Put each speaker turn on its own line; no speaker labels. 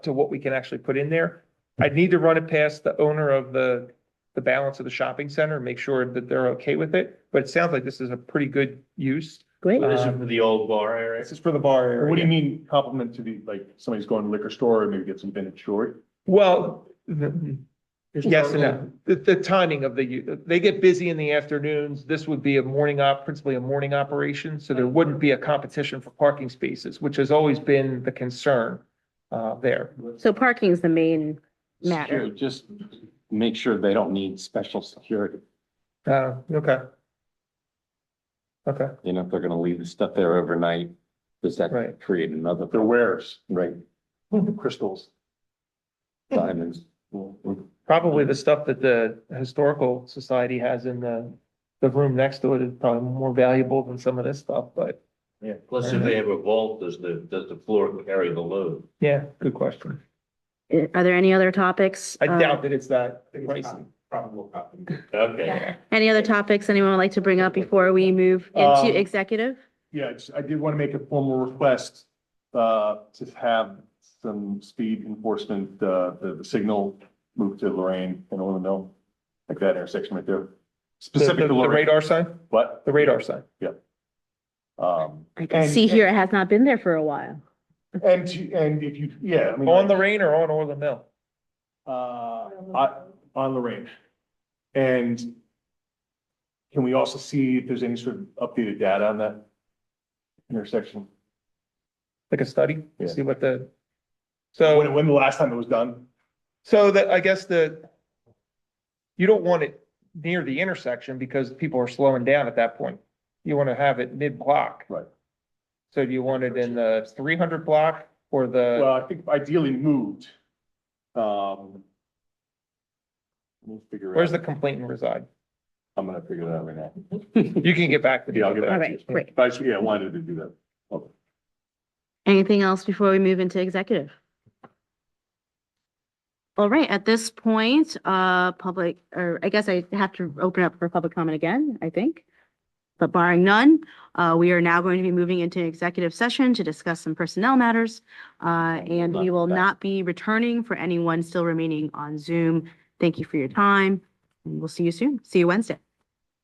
to what we can actually put in there. I'd need to run it past the owner of the, the balance of the shopping center, make sure that they're okay with it. But it sounds like this is a pretty good use. Um,
Great.
This is for the old bar area.
This is for the bar area.
What do you mean compliment to the, like, somebody's going to liquor store and maybe get some vintage jewelry?
Well, the- yes and no. The, the timing of the, u- they get busy in the afternoons. This would be a morning op, principally a morning operation. So there wouldn't be a competition for parking spaces, which has always been the concern uh, there.
So parking is the main matter.
Secure- Just make sure they don't need special security,
Uh, okay. Okay,
you know, if they're gonna leave the stuff there overnight, does that
Right.
create another,
Their wares,
right,
crystals.
diamonds?
probably the stuff that the historical society has in the, the room next to it is probably more valuable than some of this stuff, but
Plus, if they have a vault, does the, does the floor carry the load?
yeah, good question.
Uh, Are there any other topics?
I
uh,
doubt that it's that pricey.
Okay.
Any other topics anyone would like to bring up before we move into
Um,
executive?
Yeah, I just- I did want to make a formal request uh, to have some speed enforcement, uh, the the signal move to Lorraine and Illinois, like that intersection right there.
The-
Specific
The
to
the
Lorraine,
radar sign,
but
the radar sign.
um,
I can
and-
see here, it has not been there for a while.
and to- and if you, yeah, I mean.
On Lorraine or on Orland Mill?
uh, I- on Lorraine. And can we also see if there's any sort of updated data on that intersection?
Like a study,
Yeah.
see what the.
When,
So,
when the last time it was done?
so that, I guess the. You don't want it near the intersection because people are slowing down at that point. You want to have it mid-block.
Right.
So do you want it in the three hundred block or the,
Well, I think ideally moved. Um. We'll figure it out.
where's the complainant reside?
I'm gonna figure that out right now.
You can get back to. me
Yeah, I'll get
with
back.
All
that.
right, great.
But I just- yeah, I wanted to do that.
Anything else before we move into executive? All right, at this point, uh, public, or I guess I have to open up for public comment again, I think. But barring none, uh, we are now going to be moving into executive session to discuss some personnel matters. Uh, and we will not be returning for anyone still remaining on Zoom. Thank you for your time and we'll see you soon. See you Wednesday.